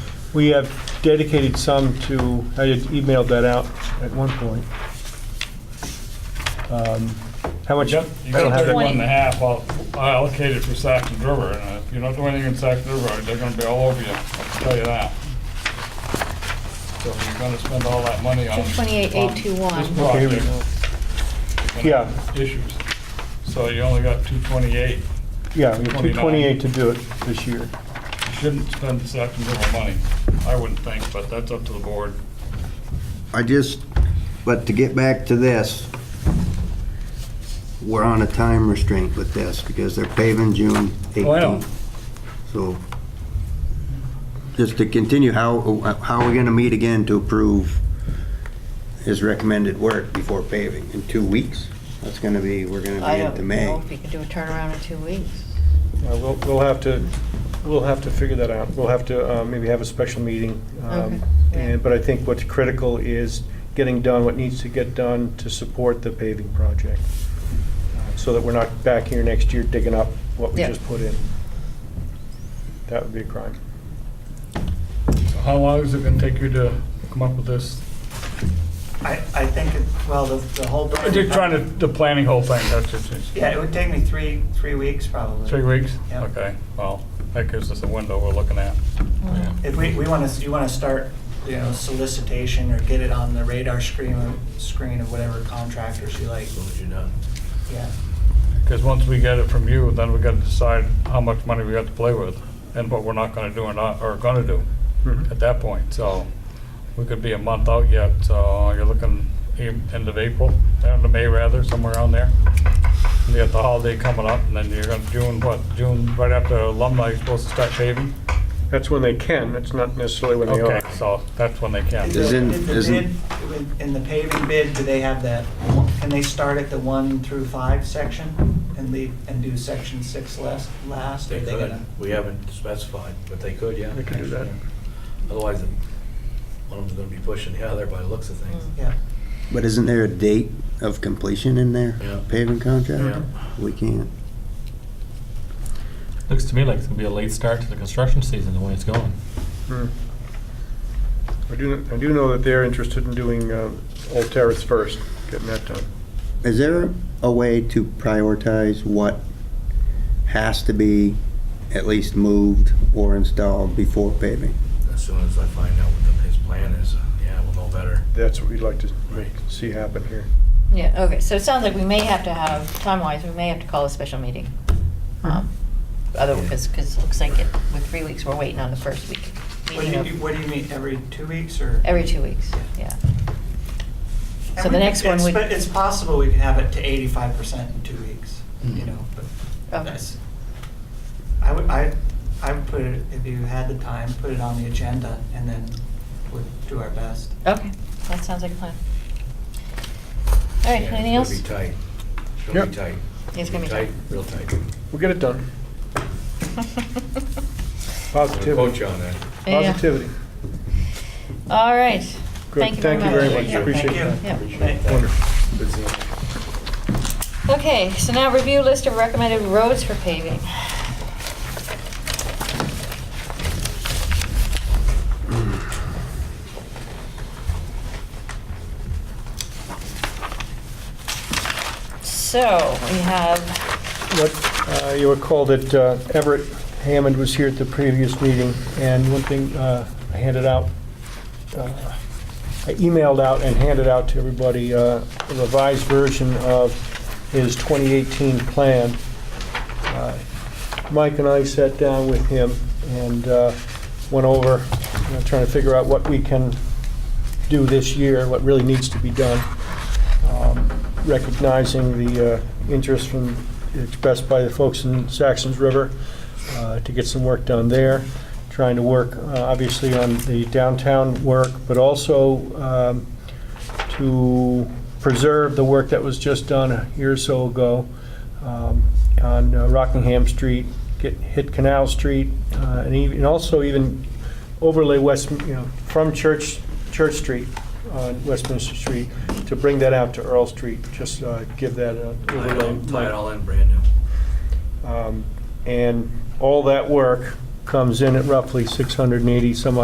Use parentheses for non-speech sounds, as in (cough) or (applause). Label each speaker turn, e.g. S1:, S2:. S1: We have dedicated some to, I had emailed that out at one point. Um, How much?
S2: Yep, you got
S1: I don't have that.
S2: thirty-one
S3: Twenty.
S2: and a half al- allocated for Saxon River, and if you don't do anything in Saxon River, they're gonna be all over you, I can tell you that. So you're gonna spend all that money on.
S3: 228,821.
S2: on This
S1: Okay, here we
S2: project. you're gonna have Issues. So you only got two twenty-eight.
S1: Yeah, we have
S2: 29.
S1: 228 to do it this year.
S2: You shouldn't spend the Saxon River money, I wouldn't think, but that's up to the board.
S4: I just, but to get back to this, we're on a time restraint with this because they're paving June
S2: Oh, I know.
S4: 18th. So just to continue, how, how are we going to meet again to approve his recommended work before paving? In two weeks? That's going to be, we're going to
S3: I
S4: be
S3: don't
S4: into May.
S3: know if you could do a turnaround in two weeks.
S1: Uh, We'll, we'll have to, we'll have to figure that out. We'll have to uh, maybe have a special meeting.
S3: Okay,
S1: um,
S3: yeah.
S1: and- But I think what's critical is getting done what needs to get done to support the paving project, uh, so that we're not back here next year digging up what we
S3: Yeah.
S1: just put in. That would be a crime.
S2: So how long is it gonna take you to come up with this?
S5: I, I think, it well, the, the whole. building-
S2: Just trying to, the planning whole thing, that's it.
S5: Yeah, it would take me three, three weeks probably.
S2: Three weeks?
S5: Yeah.
S2: Okay, well, that gives us a window we're looking at.
S5: If we, we want to, you want to start, you know, solicitation or get it on the radar screen, screen of whatever contractors you like.
S6: Would you not?
S5: Yeah,
S2: Because once we get it from you, then we gotta decide how much money we got to play with and what we're not gonna do or not, or gonna do at that point. So we could be a month out yet, so you're looking a- end of April, end of May rather, somewhere around there. You got the holiday coming up and then you're gonna, June, what, June, right after alumni, you're supposed to start paving?
S1: That's when they can, that's not necessarily when they
S2: Okay,
S1: are.
S2: so that's when they can.
S5: Is
S4: Isn't-
S5: the- did the
S4: isn't-
S5: bid- In the paving bid, do they have that, can they start at the one through five section and leave, and do section six last, last? Are
S6: They could.
S5: gonna-
S6: We haven't specified, but they could, yeah.
S1: They could do that.
S6: Otherwise, one of them's gonna be pushing the other by the looks of things.
S5: Yeah,
S4: But isn't there a date of completion in there?
S6: Yeah.
S4: Paving contract?
S6: Yeah.
S4: We can't.
S7: Looks to me like it's gonna be a late start to the construction season, the way it's going.
S1: Hmm. I do, I do know that they're interested in doing uh, Old Terrace first, getting that done.
S4: Is there a way to prioritize what has to be at least moved or installed before paving?
S3: Mm.
S6: As soon as I find out what the- his plan is, uh, yeah, we'll know better.
S1: That's what we'd like to see happen here.
S3: Yeah, okay, so it sounds like we may have to have, time-wise, we may have to call a special meeting. Um, Otherwise, because it looks like it, with three weeks, we're waiting on the first week.
S5: what do you, do- what do you mean, every two weeks or?
S3: Every two weeks, yeah. So
S5: And
S3: the
S5: we-
S3: next one
S5: it's-
S3: would.
S5: It's possible we could have it to eighty-five percent in two weeks, you know, but
S3: Okay.
S5: that's, I would, I, I would put it, if you had the time, put it on the agenda and then we'll do our best.
S3: Okay, that sounds like a plan. All right,
S6: Yeah,
S3: anything else?
S6: It's gonna be tight. It's gonna be
S1: Yep.
S6: tight.
S3: It's gonna be tight.
S6: Real tight.
S1: We'll get it done.
S3: (laughs)
S6: I'll
S1: Positivity.
S6: Coach you on that.
S3: Yeah.
S1: Positivity.
S3: All right.
S1: Good.
S3: Thank you very much.
S1: Thank you very much, appreciate
S5: Thank
S1: that.
S5: you.
S3: Yeah.
S5: Appreciate that.
S1: Wonderful.
S3: Okay, so now review list of recommended roads for paving. So, we have,
S1: What, uh, you recall that uh, Everett Hammond was here at the previous meeting, and one thing uh, I handed out, uh, I emailed out and handed out to everybody uh, a revised version of his 2018 plan. Uh, Mike and I sat down with him and uh, went over, you know, trying to figure out what we can do this year, what really needs to be done um, recognizing the uh, interest from, expressed by the folks in Saxons River uh, to get some work done there, trying to work, uh, obviously, on the downtown work, but also um, to preserve the work that was just done a year or so ago um, on uh, Rockingham Street, get, hit Canal Street, uh, and even, and also even overlay West, you know, from Church, Church Street, on Westminster Street, to bring that out to Earl Street, just uh, give that a
S6: Tie it all- tie it
S1: overlay.
S6: all in brand new.
S1: Um, And all that work comes in at roughly 680 some odd